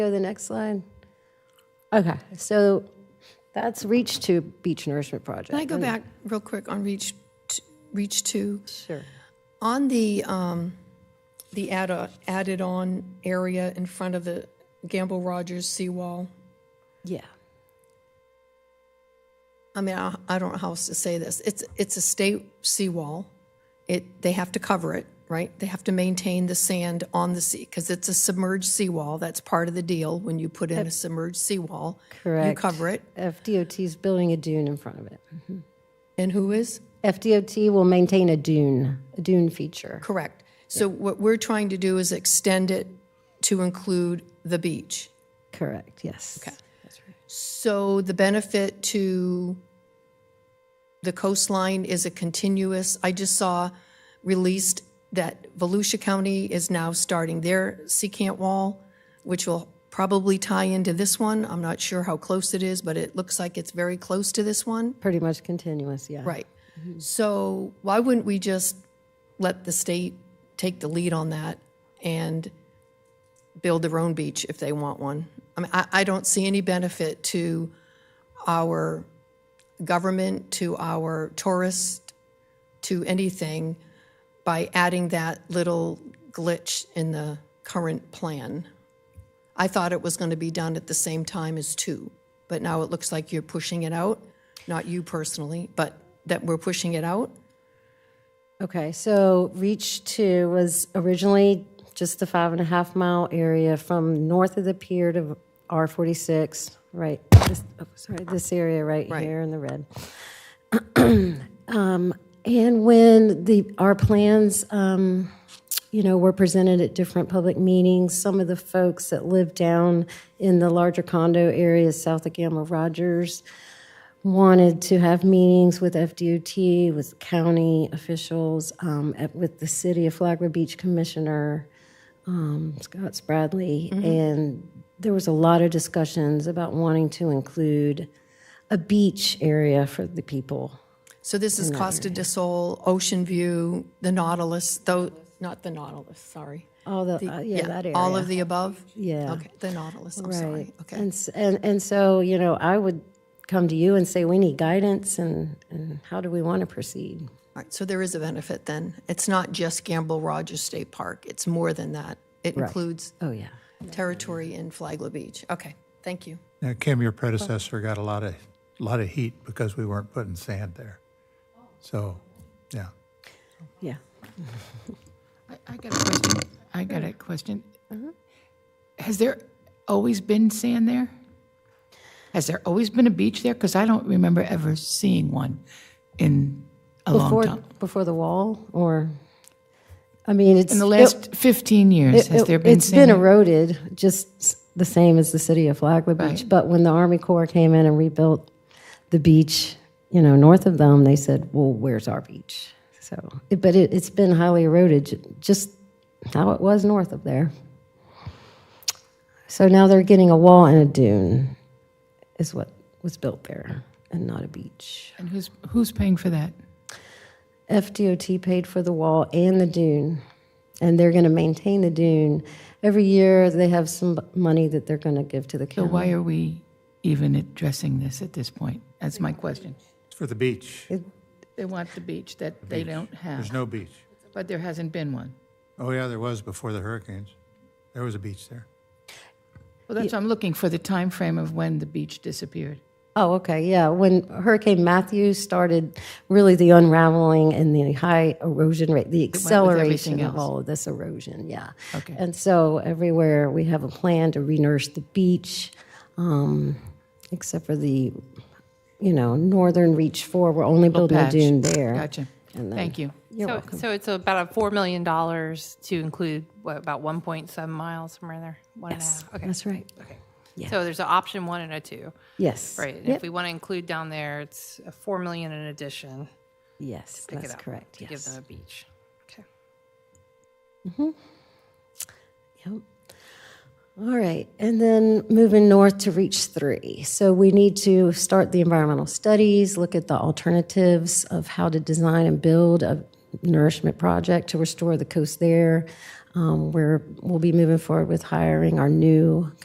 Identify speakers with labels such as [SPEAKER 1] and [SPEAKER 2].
[SPEAKER 1] Go to the next slide. Okay, so that's Reach to Beach Nourishment Project.
[SPEAKER 2] Can I go back real quick on reach, t- reach two?
[SPEAKER 1] Sure.
[SPEAKER 2] On the, um, the add, added on area in front of the Gamble Rogers seawall,
[SPEAKER 1] Yeah.
[SPEAKER 2] I mean, I, I don't know how else to say this. It's, it's a state seawall. It, they have to cover it, right? They have to maintain the sand on the sea because it's a submerged seawall. That's part of the deal when you put in a submerged seawall. You
[SPEAKER 1] Correct.
[SPEAKER 2] cover it.
[SPEAKER 1] FDOT's building a dune in front of it.
[SPEAKER 2] And who is?
[SPEAKER 1] FDOT will maintain a dune, a dune feature.
[SPEAKER 2] Correct. So what we're trying to do is extend it to include the beach.
[SPEAKER 1] Correct, yes. Okay.
[SPEAKER 2] So the benefit to the coastline is a continuous, I just saw released that Volusia County is now starting their secant wall, which will probably tie into this one. I'm not sure how close it is, but it looks like it's very close to this one.
[SPEAKER 1] Pretty much continuous, yeah.
[SPEAKER 2] Right. So why wouldn't we just let the state take the lead on that and build their own beach if they want one? I mean, I, I don't see any benefit to our government, to our tourists, to anything by adding that little glitch in the current plan. I thought it was going to be done at the same time as two, but now it looks like you're pushing it out. Not you personally, but that we're pushing it out.
[SPEAKER 1] Okay, so Reach Two was originally just the five and a half mile area from north of the pier to R forty-six, right? this- oh, Sorry, this area right here in the red. Um, And when the, our plans, um, you know, were presented at different public meetings, some of the folks that live down in the larger condo areas south of Gamma Rogers, wanted to have meetings with FDOT, with county officials, um, at- with the city of Flagler Beach Commissioner, um, Scott Spradley.
[SPEAKER 2] Mm-hmm.
[SPEAKER 1] And there was a lot of discussions about wanting to include a beach area for the people.
[SPEAKER 2] So this is Costa de Sol, Ocean View, the Nautilus, though, not the Nautilus, sorry.
[SPEAKER 1] All the, uh, yeah, that area.
[SPEAKER 2] All of the above?
[SPEAKER 1] Yeah.
[SPEAKER 2] Okay, the Nautilus, I'm sorry. Okay,
[SPEAKER 1] And, s- and, and so, you know, I would come to you and say, we need guidance and, and how do we want to proceed?
[SPEAKER 2] all right, so there is a benefit then. It's not just Gamble Rogers State Park, it's more than that. It includes
[SPEAKER 1] Oh, yeah.
[SPEAKER 2] territory in Flagler Beach. Okay, thank you.
[SPEAKER 3] Now, Kim, your predecessor got a lot of, lot of heat because we weren't putting sand there. So, yeah.
[SPEAKER 1] Yeah.
[SPEAKER 4] I- I got a question. I got a question.
[SPEAKER 1] Mm-hmm.
[SPEAKER 4] Has there always been sand there? Has there always been a beach there? Because I don't remember ever seeing one in a long
[SPEAKER 1] Before,
[SPEAKER 4] time.
[SPEAKER 1] before the wall or, I mean, it's.
[SPEAKER 4] In the last 15 years, has there been
[SPEAKER 1] It's been
[SPEAKER 4] sand?
[SPEAKER 1] eroded, just s- the same as the city of Flagler Beach. But when the Army Corps came in and rebuilt the beach, you know, north of them, they said, well, where's our beach? So, it- but it, it's been highly eroded, ju- just how it was north of there. So now they're getting a wall and a dune is what was built there and not a beach.
[SPEAKER 4] And who's, who's paying for that?
[SPEAKER 1] FDOT paid for the wall and the dune, and they're going to maintain the dune. Every year, they have some money that they're going to give to the
[SPEAKER 4] So
[SPEAKER 1] county.
[SPEAKER 4] why are we even addressing this at this point? That's my question.
[SPEAKER 3] It's for the beach.
[SPEAKER 4] They want the beach that they don't
[SPEAKER 3] There's
[SPEAKER 4] have,
[SPEAKER 3] no beach.
[SPEAKER 4] but there hasn't been one.
[SPEAKER 3] Oh, yeah, there was before the hurricanes. There was a beach there.
[SPEAKER 4] Well, that's, I'm looking for the time frame of when the beach disappeared.
[SPEAKER 1] Oh, okay, yeah. When Hurricane Matthew started, really the unraveling and the high erosion rate, the acceleration
[SPEAKER 4] everything
[SPEAKER 1] of
[SPEAKER 4] else.
[SPEAKER 1] all of this erosion, yeah.
[SPEAKER 4] Okay.
[SPEAKER 1] And so everywhere, we have a plan to renourish the beach, um, except for the, you know, northern reach four, we're only building a
[SPEAKER 4] patch.
[SPEAKER 1] dune there.
[SPEAKER 4] Gotcha. Thank you.
[SPEAKER 5] so, so it's about a four million dollars to include what about one point seven miles somewhere in there. One and a half. Okay.
[SPEAKER 1] That's right,
[SPEAKER 5] So there's an option one and a two,
[SPEAKER 1] yes.
[SPEAKER 5] right? And If we want to include down there, it's a four million in addition.
[SPEAKER 1] Yes,
[SPEAKER 5] Pick it
[SPEAKER 1] that's
[SPEAKER 5] up
[SPEAKER 1] correct,
[SPEAKER 5] To give them
[SPEAKER 1] yes.
[SPEAKER 5] a beach. Okay.
[SPEAKER 1] Yep. All right, and then moving north to reach three. So we need to start the environmental studies, look at the alternatives of how to design and build a nourishment project to restore the coast there. Um, Where we'll be moving forward with hiring our new